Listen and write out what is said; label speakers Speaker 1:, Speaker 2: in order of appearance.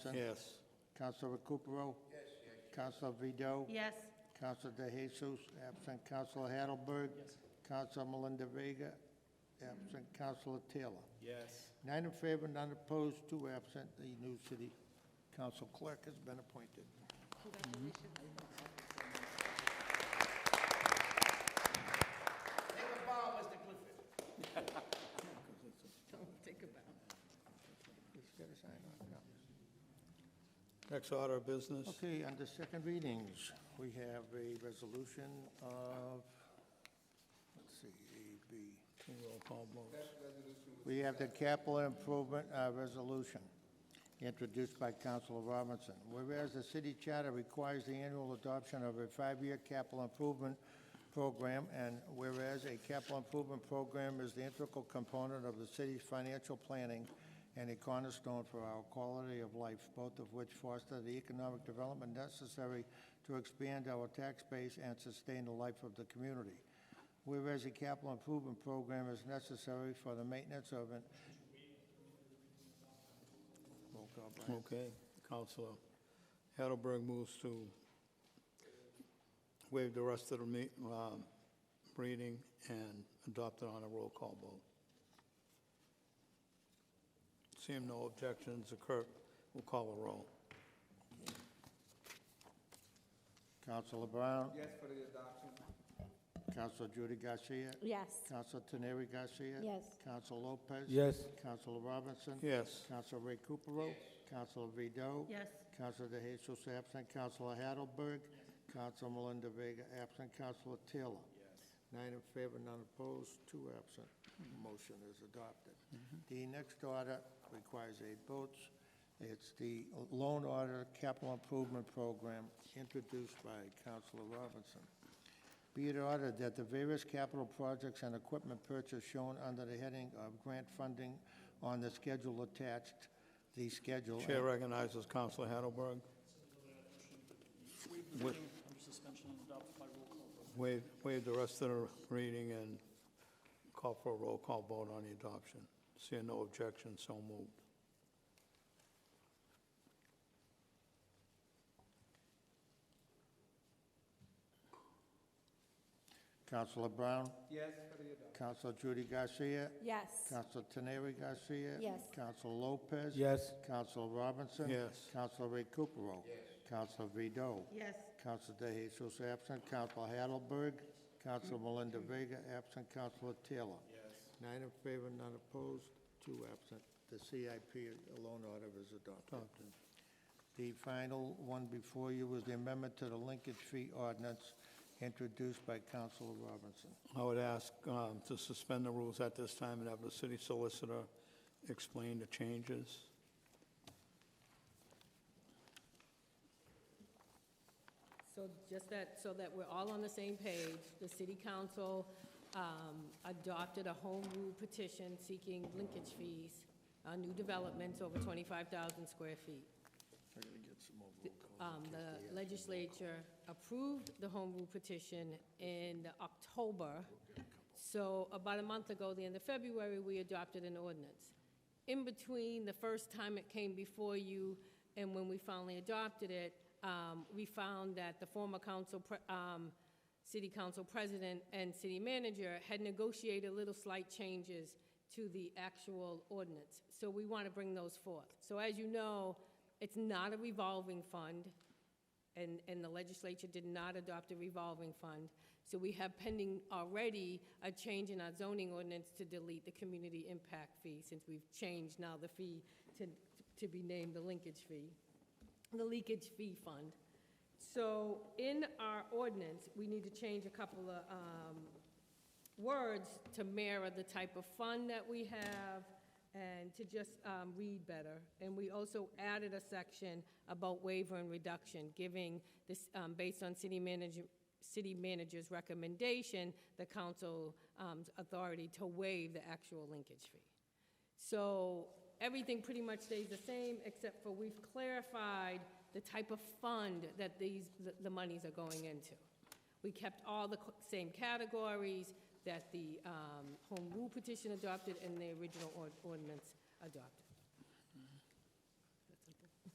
Speaker 1: Yes.
Speaker 2: Councilor Recupero? Yes. Councilor Vido?
Speaker 3: Yes.
Speaker 2: Councilor De Jesus, absent Councilor Hattelberg. Yes. Councilor Melinda Vega, absent Councilor Taylor.
Speaker 4: Yes.
Speaker 2: Nine in favor, none opposed, two absent. The new city council clerk has been appointed.
Speaker 4: Take a bow, Mr. Clifford.
Speaker 3: Don't think about
Speaker 2: Just gotta sign on, yeah.
Speaker 1: Next order of business,
Speaker 2: Okay, under second readings, we have a resolution of, let's see, A, B.
Speaker 1: two roll call votes.
Speaker 2: We have the capital improvement uh, resolution introduced by Councilor Robinson. Whereas the city charter requires the annual adoption of a five-year capital improvement program, and whereas a capital improvement program is the integral component of the city's financial planning and a cornerstone for our quality of life, both of which foster the economic development necessary to expand our tax base and sustain the life of the community. Whereas a capital improvement program is necessary for the maintenance of an. Roll call, Brian.
Speaker 1: Okay, Counselor Hattelberg moves to waive the rest of the me- um, reading and adopt it on a roll call vote. Seeing no objections, the clerk will call a roll.
Speaker 2: Counselor Brown.
Speaker 4: Yes for the adoption.
Speaker 2: Counselor Judy Garcia.
Speaker 3: Yes.
Speaker 2: Counselor Teneri Garcia.
Speaker 3: Yes.
Speaker 2: Counselor Lopez.
Speaker 1: Yes.
Speaker 2: Counselor Robinson.
Speaker 1: Yes.
Speaker 2: Counselor Ray Cooperrow. Counselor Vido.
Speaker 3: Yes.
Speaker 2: Counselor De Jesus absent. Counselor Hattelberg. Counselor Melinda Vega absent. Counselor Taylor. Nine in favor, none opposed, two absent. Motion is adopted. The next order requires eight votes. It's the loan order capital improvement program introduced by Counselor Robinson. Be it ordered that the various capital projects and equipment purchase shown under the heading of grant funding on the schedule attached, the schedule.
Speaker 1: Chair recognizes Counselor Hattelberg.
Speaker 5: Waive the reading under suspension and adopt by roll call vote.
Speaker 1: Waive, waive the rest of the reading and call for a roll call vote on the adoption. Seeing no objections, so moved.
Speaker 2: Counselor Brown,
Speaker 4: Yes for the adoption.
Speaker 2: Counselor Judy Garcia,
Speaker 3: Yes.
Speaker 2: Counselor Teneri Garcia.
Speaker 3: Yes.
Speaker 2: Counselor Lopez.
Speaker 1: Yes.
Speaker 2: Counselor Robinson.
Speaker 1: Yes.
Speaker 2: Counselor Ray Cooperrow. Yes. Counselor Vido.
Speaker 3: Yes.
Speaker 2: Counselor De Jesus absent. Counselor Hattelberg. Counselor Melinda Vega absent. Counselor Taylor. Yes. Nine in favor, none opposed, two absent. The CIP loan order is adopted. The final one before you is the amendment to the linkage fee ordinance introduced by Counselor Robinson.
Speaker 1: I would ask um, to suspend the rules at this time and have the city solicitor explain the changes.
Speaker 6: So just that, so that we're all on the same page, the city council um, adopted a home rule petition seeking linkage fees on new developments over 25,000 square feet.
Speaker 2: I gotta get some more
Speaker 6: Um, The legislature approved the home rule petition in October. So about a month ago, the end of February, we adopted an ordinance. In between the first time it came before you and when we finally adopted it, um, we found that the former council, pre- um, city council president and city manager had negotiated little slight changes to the actual ordinance. So we want to bring those forth. So as you know, it's not a revolving fund, and, and the legislature did not adopt a revolving fund. So we have pending already a change in our zoning ordinance to delete the community impact fee, since we've changed now the fee to, to be named the linkage fee, the leakage fee fund. So in our ordinance, we need to change a couple of, um, words to mirror the type of fun that we have and to just um, read better. And we also added a section about waiver and reduction, giving this, um, based on city manager, city manager's recommendation, the council's authority to waive the actual linkage fee. So everything pretty much stays the same, except for we've clarified the type of fund that these, the- the monies are going into. We kept all the co- same categories that the um, home rule petition adopted and the original ord- ordinance adopted.